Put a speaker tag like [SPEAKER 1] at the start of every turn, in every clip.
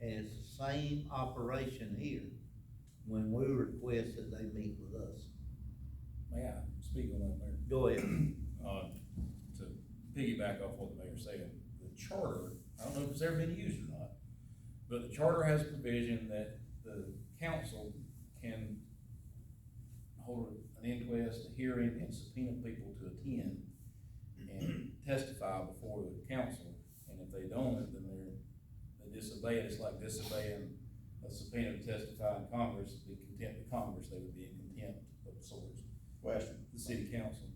[SPEAKER 1] has the same operation here when we request that they meet with us.
[SPEAKER 2] May I speak on that, Mayor?
[SPEAKER 1] Go ahead.
[SPEAKER 2] Uh, to piggyback off what the mayor said, the charter, I don't know if it's ever been used or not, but the charter has a provision that the council can hold an inquest, a hearing, and subpoena people to attend and testify before the council, and if they don't, then they're, they disobey, it. it's like disobeying a subpoena to testify in Congress, be contempt of Congress, they would be in contempt of sorts,
[SPEAKER 3] Question,
[SPEAKER 2] the city council.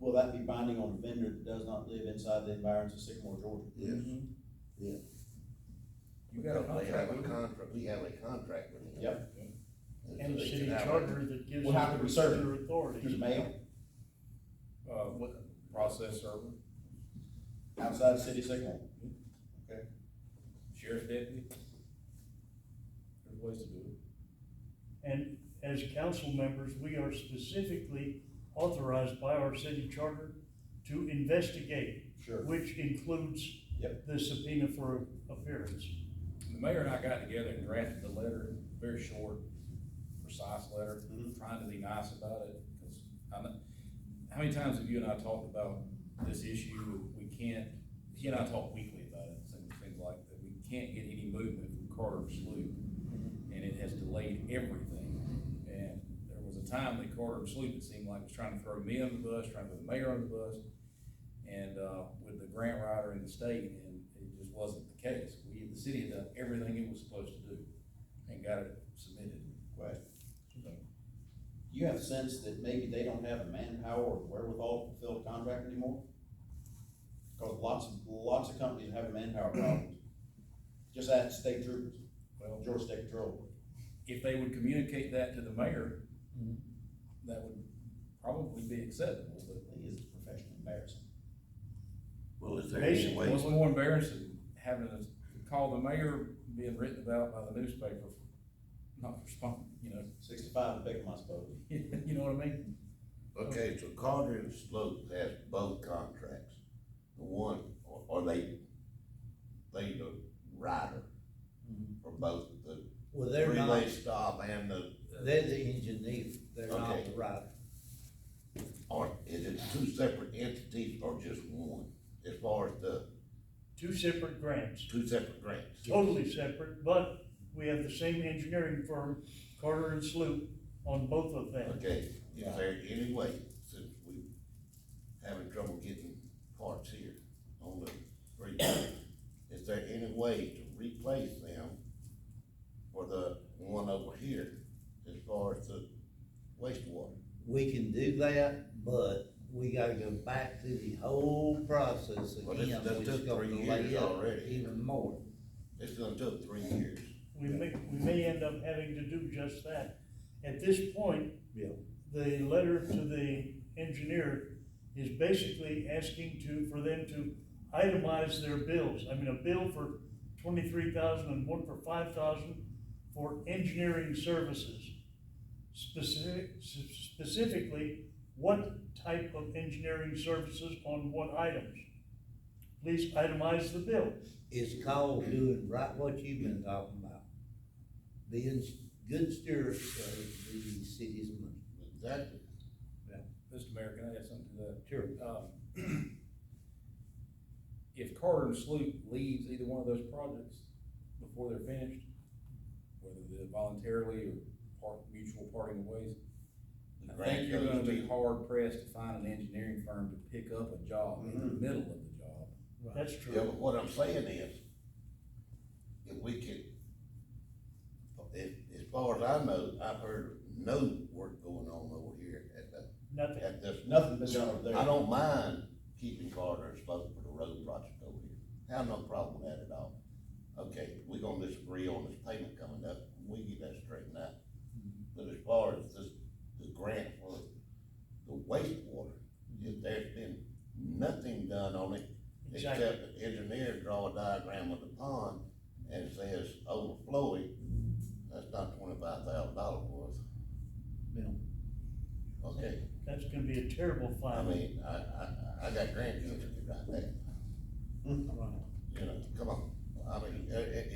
[SPEAKER 3] will that be binding on a vendor that does not live inside the environs of Sycamore, Georgia?
[SPEAKER 4] Yes, yes.
[SPEAKER 2] You Mm-hmm. got a
[SPEAKER 4] They have
[SPEAKER 2] contract
[SPEAKER 4] a
[SPEAKER 2] with them.
[SPEAKER 4] contract, we have a contract with them.
[SPEAKER 3] Yep,
[SPEAKER 5] And the
[SPEAKER 4] So they
[SPEAKER 5] city
[SPEAKER 4] can have-
[SPEAKER 5] charter that gives
[SPEAKER 3] We'll have to
[SPEAKER 5] them
[SPEAKER 3] reserve it.
[SPEAKER 5] their authority.
[SPEAKER 3] through the mail,
[SPEAKER 2] Uh, what, process server,
[SPEAKER 3] outside the city of Sycamore.
[SPEAKER 2] sheriff's deputy. There's ways to do it.
[SPEAKER 5] And as council members, we are specifically authorized by our city charter to investigate,
[SPEAKER 3] Sure.
[SPEAKER 5] which includes
[SPEAKER 3] Yep.
[SPEAKER 5] the subpoena for appearance.
[SPEAKER 2] The mayor and I got together and drafted the letter, very short, precise letter,
[SPEAKER 3] Mhm.
[SPEAKER 2] trying to be nice about it, because I know, how many times have you and I talked about this issue? We can't, he and I talk weekly about it, things, things like that. We can't get any movement from Carter to Sloop. and it has delayed everything. And there was a time that Carter and Sloop, it seemed like, was trying to throw me under the bus, trying to throw the mayor under the bus, and, uh, with the grant writer in the state, and it just wasn't the case. We, the city had done everything it was supposed to do and got it submitted.
[SPEAKER 3] Question,
[SPEAKER 2] So,
[SPEAKER 3] you have a sense that maybe they don't have the manpower or wherewithal to fulfill a contract anymore? Cause lots of, lots of companies have manpower problems. Just ask state troopers,
[SPEAKER 2] Well,
[SPEAKER 3] Georgia State Patrol.
[SPEAKER 2] if they would communicate that to the mayor,
[SPEAKER 1] Mhm.
[SPEAKER 4] Mm-hmm.
[SPEAKER 2] that would probably be acceptable, but
[SPEAKER 3] It is professionally embarrassing.
[SPEAKER 4] Well, is there any
[SPEAKER 5] Basically,
[SPEAKER 4] way,
[SPEAKER 2] What's more embarrassing, having to call the mayor, being written about by the newspaper, for not responding, you know,
[SPEAKER 3] Sixty-five to pick 'em, I suppose.
[SPEAKER 2] you know what I mean?
[SPEAKER 4] okay, so Carter and Sloat has both contracts. The one, or, or they, they the rider for both the
[SPEAKER 1] Well, Mm-hmm. they're not,
[SPEAKER 4] relay stop and the,
[SPEAKER 1] they're the engineer, they're not
[SPEAKER 4] Okay.
[SPEAKER 1] the rider.
[SPEAKER 4] or is it two separate entities or just one? As far as the
[SPEAKER 5] Two separate grants,
[SPEAKER 4] two separate grants?
[SPEAKER 5] totally separate, but we have the same engineering firm, Carter and Sloop, on both of them.
[SPEAKER 4] Okay, is there any way, since we having trouble getting parts here on the three, is there any way to replace them for the one over here as far as the wastewater?
[SPEAKER 1] We can do that, but we gotta go back through the whole process
[SPEAKER 4] Well, this-
[SPEAKER 1] again,
[SPEAKER 4] that
[SPEAKER 1] which is
[SPEAKER 4] took
[SPEAKER 1] gonna
[SPEAKER 4] three
[SPEAKER 1] delay
[SPEAKER 4] years
[SPEAKER 1] it
[SPEAKER 4] already.
[SPEAKER 1] even more.
[SPEAKER 4] It's gonna take three years.
[SPEAKER 5] We may, we may end up having to do just that. At this point,
[SPEAKER 1] Yeah.
[SPEAKER 5] the letter to the engineer is basically asking to, for them to itemize their bills. I mean, a bill for twenty-three thousand and one for five thousand for engineering services. Specific, s- specifically, what type of engineering services on what items? Please itemize the bill.
[SPEAKER 1] It's called doing right what you've been talking about. Being good stewards of the city's money.
[SPEAKER 4] Exactly.
[SPEAKER 2] Mr. Mayor, can I add something to
[SPEAKER 1] Sure.
[SPEAKER 2] that? Um, If Carter and Sloop leaves either one of those projects before they're finished, whether they're voluntarily or part, mutual parting of ways,
[SPEAKER 4] The
[SPEAKER 2] I think
[SPEAKER 4] grant
[SPEAKER 2] you're gonna
[SPEAKER 4] goes
[SPEAKER 2] be
[SPEAKER 4] to,
[SPEAKER 2] hard pressed to find an engineering firm to pick up a job in the middle of the job.
[SPEAKER 5] That's
[SPEAKER 4] yeah,
[SPEAKER 5] true.
[SPEAKER 4] but what I'm saying is, if we could, if, as far as I know, I've heard no work going on over here at the
[SPEAKER 5] Nothing.
[SPEAKER 4] at this.
[SPEAKER 3] Nothing been done over there.
[SPEAKER 4] I don't mind keeping Carter and Spoke for the road project over here. Have no problem with that at all. Okay, we are gonna disagree on this payment coming up, we get that straightened out. But as far as this, the grant for the wastewater, if there's been nothing done on it
[SPEAKER 5] Exactly.
[SPEAKER 4] except the engineer draw a diagram of the pond and says overflowing, that's not twenty-five thousand dollars worth.
[SPEAKER 1] Yeah.
[SPEAKER 4] Okay.
[SPEAKER 5] That's gonna be a terrible
[SPEAKER 4] I
[SPEAKER 5] fine.
[SPEAKER 4] mean, I, I, I got grandchildren right there.
[SPEAKER 1] Right.